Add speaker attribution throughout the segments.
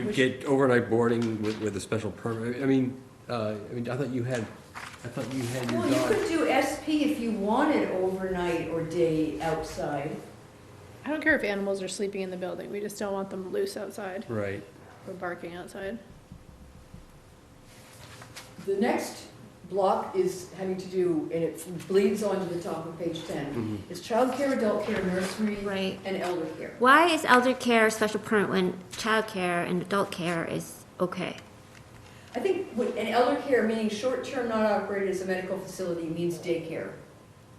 Speaker 1: get overnight boarding with, with a special permit? I mean, uh, I mean, I thought you had, I thought you had your
Speaker 2: Well, you
Speaker 1: dog.
Speaker 2: could do SP if you wanted overnight or day outside.
Speaker 3: I don't care if animals are sleeping in the building, we just don't want them loose outside
Speaker 1: Right,
Speaker 3: or barking outside.
Speaker 4: The next block is having to do, and it bleeds onto the top of page ten,
Speaker 1: mhm.
Speaker 4: is childcare, adult care, nursery,
Speaker 5: Right.
Speaker 4: and elder care.
Speaker 5: Why is elder care a special permit when child care and adult care is okay?
Speaker 4: I think, what- and elder care, meaning short-term not operated as a medical facility, means daycare.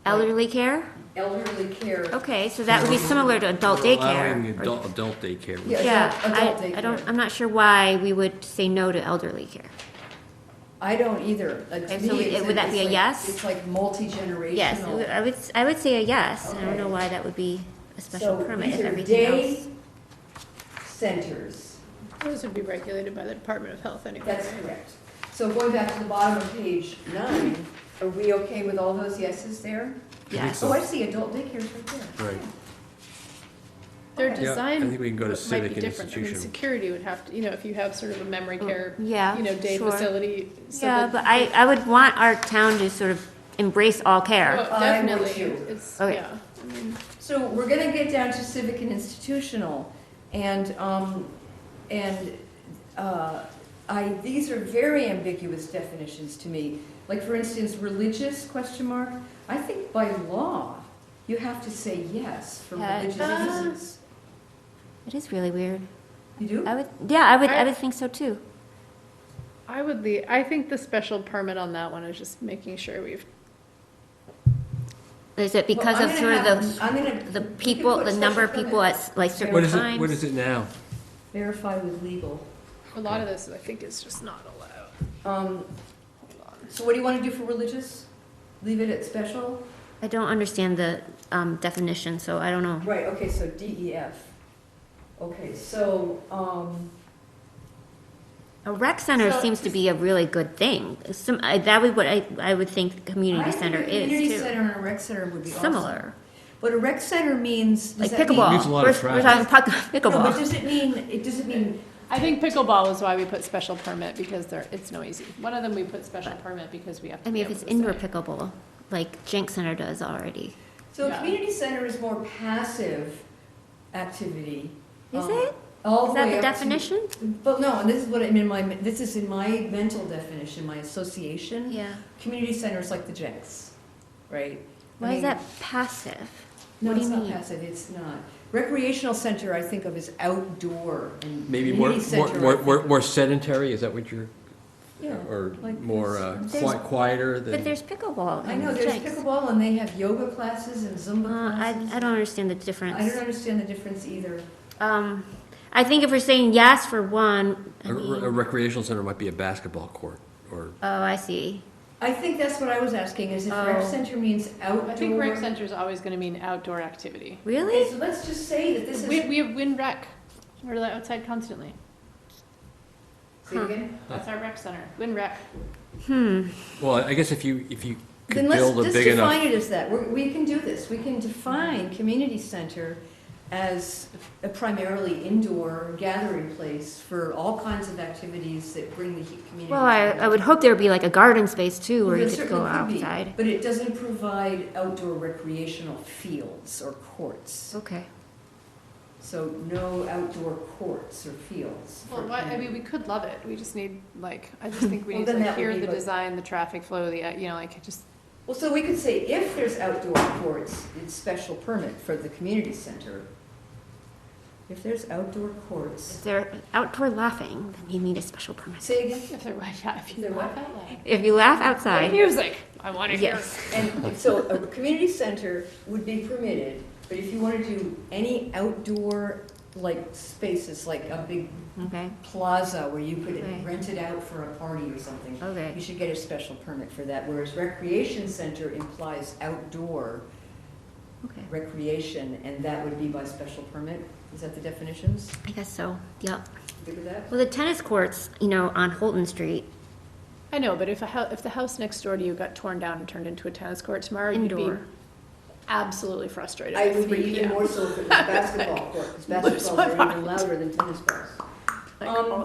Speaker 5: Elderly care?
Speaker 4: Elderly care,
Speaker 5: Okay, so that would be similar to adult
Speaker 1: We're allowing
Speaker 5: daycare. or-
Speaker 1: Adult, adult daycare. which-
Speaker 4: Yeah, adult-
Speaker 5: Yeah,
Speaker 4: adult
Speaker 5: I, I don't,
Speaker 4: daycare.
Speaker 5: I'm not sure why we would say no to elderly care.
Speaker 4: I don't either. Like, to
Speaker 5: Okay, so
Speaker 4: me,
Speaker 5: it-
Speaker 4: it's
Speaker 5: would that be a
Speaker 4: it's like-
Speaker 5: yes?
Speaker 4: It's like multi-generational.
Speaker 5: Yes, it would- I would, s- I would say a yes, I don't know
Speaker 4: Okay.
Speaker 5: why that would be a special
Speaker 4: So
Speaker 5: permit
Speaker 4: these
Speaker 5: if
Speaker 4: are
Speaker 5: everything
Speaker 4: day
Speaker 5: else.
Speaker 4: Centers,
Speaker 3: Those would be regulated by the Department of Health anyway.
Speaker 4: that's
Speaker 3: right?
Speaker 4: correct. So going back to the bottom of page nine, are we okay with all those yeses there?
Speaker 1: think
Speaker 5: Yes,
Speaker 1: so.
Speaker 4: Oh, I see, adult daycare's right there.
Speaker 1: Right.
Speaker 3: Their
Speaker 4: Yeah, I
Speaker 3: design
Speaker 1: think we can go to
Speaker 3: might be
Speaker 1: civic and
Speaker 3: different. I mean,
Speaker 1: institutional.
Speaker 3: Security would have to, you know, if you have sort of a memory care,
Speaker 5: yeah,
Speaker 3: you know, day
Speaker 5: sure.
Speaker 3: facility. so
Speaker 5: Yeah,
Speaker 3: that- Oh,
Speaker 5: but I, I would want our town to sort of embrace all care.
Speaker 3: Oh,
Speaker 4: I would
Speaker 3: Definitely,
Speaker 4: too.
Speaker 3: it's,
Speaker 5: Okay.
Speaker 3: yeah. I mean,
Speaker 4: So we're gonna get down to civic and institutional, and, um, and, uh, I, these are very ambiguous definitions to me. Like, for instance, religious, question mark, I think by law, you have to say yes for
Speaker 5: Yeah, uh, it
Speaker 4: religious
Speaker 3: does.
Speaker 4: reasons.
Speaker 5: It is really weird.
Speaker 4: You do?
Speaker 5: I would, yeah, I would, I
Speaker 3: I-
Speaker 5: would think so too.
Speaker 3: I would leave, I think the special permit on that one is just making sure we've,
Speaker 5: Is it because
Speaker 4: Well,
Speaker 5: of
Speaker 4: I'm
Speaker 5: sort of
Speaker 4: gonna have-
Speaker 5: the,
Speaker 4: I'm gonna.
Speaker 5: the
Speaker 4: we can
Speaker 5: people,
Speaker 4: put
Speaker 5: the number of
Speaker 4: special
Speaker 5: people
Speaker 4: permit.
Speaker 5: at like certain
Speaker 1: What
Speaker 5: times?
Speaker 1: is it, what is it now?
Speaker 4: Verify with legal.
Speaker 3: a lot of this, I think, is just not allowed.
Speaker 4: Um, so what do you wanna do for religious? Leave it at special?
Speaker 5: I don't understand the um, definition, so I don't know.
Speaker 4: Right, okay, so DEF. Okay, so, um,
Speaker 5: A rec center
Speaker 4: So-
Speaker 5: seems to be a really good thing. Some, I, that would what I, I would think the community
Speaker 4: I think
Speaker 5: center
Speaker 4: a
Speaker 5: is
Speaker 4: community
Speaker 5: too.
Speaker 4: center and a rec center would be awesome.
Speaker 5: Similar,
Speaker 4: But a rec center means, does
Speaker 5: like
Speaker 4: that mean?
Speaker 5: pickleball.
Speaker 1: Needs a lot
Speaker 5: we're,
Speaker 1: of
Speaker 5: we're talking puck,
Speaker 4: No, but
Speaker 5: pickleball.
Speaker 4: does it mean, it doesn't mean,
Speaker 3: I think pickleball is why we put special permit, because there, it's noisy. One of them, we put special permit because we have
Speaker 5: I
Speaker 3: to be
Speaker 5: mean, if
Speaker 3: able
Speaker 5: it's
Speaker 3: to
Speaker 5: indoor
Speaker 3: say-
Speaker 5: pickleball, like Jenk Center does already,
Speaker 4: so a
Speaker 3: Yeah.
Speaker 4: community center is more passive activity.
Speaker 5: is
Speaker 4: um,
Speaker 5: it?
Speaker 4: All
Speaker 5: Is
Speaker 4: the
Speaker 5: that
Speaker 4: way
Speaker 5: the
Speaker 4: up to-
Speaker 5: definition?
Speaker 4: But no, and this is what I mean, my, this is in my mental definition, my association.
Speaker 5: Yeah.
Speaker 4: Community centers like the Jenks, right? I
Speaker 5: Why is
Speaker 4: mean,
Speaker 5: that passive?
Speaker 4: No,
Speaker 5: what do
Speaker 4: it's
Speaker 5: you
Speaker 4: not
Speaker 5: mean?
Speaker 4: passive, it's not. Recreational center, I think of as outdoor and
Speaker 1: Maybe more,
Speaker 4: community
Speaker 1: more,
Speaker 4: center. I
Speaker 1: more-
Speaker 4: think-
Speaker 1: more, more sedentary, is that what you're,
Speaker 4: Yeah,
Speaker 1: or
Speaker 4: like
Speaker 1: more
Speaker 4: this.
Speaker 1: uh, qui-
Speaker 5: There's-
Speaker 1: quieter than?
Speaker 5: But there's pickleball.
Speaker 4: I
Speaker 5: and
Speaker 4: know, there's
Speaker 5: Jenks.
Speaker 4: pickleball and they have yoga classes and
Speaker 5: Uh,
Speaker 4: Zumba
Speaker 5: I,
Speaker 4: classes.
Speaker 5: I don't understand the
Speaker 4: I don't
Speaker 5: difference.
Speaker 4: understand the difference either.
Speaker 5: Um, I think if we're saying yes for one, I
Speaker 1: A re- a
Speaker 5: mean,
Speaker 1: recreational center might be a basketball court, or,
Speaker 5: oh, I see.
Speaker 4: I think that's what I was asking, is if
Speaker 5: Oh.
Speaker 4: rec center means outdoor.
Speaker 3: I think rec center is always gonna mean outdoor activity.
Speaker 4: Okay,
Speaker 5: Really?
Speaker 4: so let's just say that this is.
Speaker 3: We, we have wind rec, we're like outside constantly,
Speaker 4: Say it again?
Speaker 3: that's our rec center, wind rec.
Speaker 5: Hmm.
Speaker 1: well, I guess if you, if you could
Speaker 4: Then let's
Speaker 1: build a
Speaker 4: just
Speaker 1: big enough.
Speaker 4: define it as that. We're- We can do this. We can define community center as a primarily indoor gathering place for all kinds of activities that bring the he- community.
Speaker 5: Well, I, I would hope there would be like a garden space too, where
Speaker 4: There
Speaker 5: you could go
Speaker 4: certainly could be,
Speaker 5: outside.
Speaker 4: But it doesn't provide outdoor recreational fields or courts.
Speaker 5: Okay.
Speaker 4: So no outdoor courts or fields.
Speaker 3: Well,
Speaker 4: for
Speaker 3: why, I
Speaker 4: community.
Speaker 3: mean, we could love it, we just need, like, I just think we
Speaker 4: Well,
Speaker 3: need
Speaker 4: then
Speaker 3: to like,
Speaker 4: that would
Speaker 3: hear
Speaker 4: be
Speaker 3: the
Speaker 4: like-
Speaker 3: design, the traffic flow, the, uh, you know, like, just,
Speaker 4: Well, so we could say if there's outdoor courts, it's special permit for the community center. If there's outdoor courts.
Speaker 5: If they're outdoor laughing, then you need a special permit.
Speaker 4: Say again?
Speaker 3: if there, yeah, if you
Speaker 4: There
Speaker 3: laugh
Speaker 4: what?
Speaker 3: out loud.
Speaker 5: If you laugh
Speaker 3: Play
Speaker 5: outside,
Speaker 3: Music, I wanna hear.
Speaker 5: yes.
Speaker 4: And so a community center would be permitted, but if you want to do any outdoor, like, spaces, like a big
Speaker 5: Okay.
Speaker 4: plaza where you could
Speaker 5: Right.
Speaker 4: rent it out for a party or something, you
Speaker 5: Okay.
Speaker 4: should get a special permit for that, whereas recreation center implies outdoor
Speaker 5: Okay.
Speaker 4: recreation, and that would be by special permit? Is that the definitions?
Speaker 5: I guess so. Yep.
Speaker 4: Good with that?
Speaker 5: Well, the tennis courts, you know, on Holton Street.
Speaker 3: I know, but if a hou- if the house next door to you got torn down and turned into a tennis court tomorrow, you'd
Speaker 5: Indoor.
Speaker 3: be absolutely frustrated.
Speaker 4: I
Speaker 3: at
Speaker 4: would be
Speaker 3: 3
Speaker 4: even
Speaker 3: p.m.
Speaker 4: more so for the basketball court, because
Speaker 3: Lose
Speaker 4: basketballs are
Speaker 3: my
Speaker 4: even
Speaker 3: mind.
Speaker 4: louder than tennis balls.
Speaker 3: Like,
Speaker 4: um,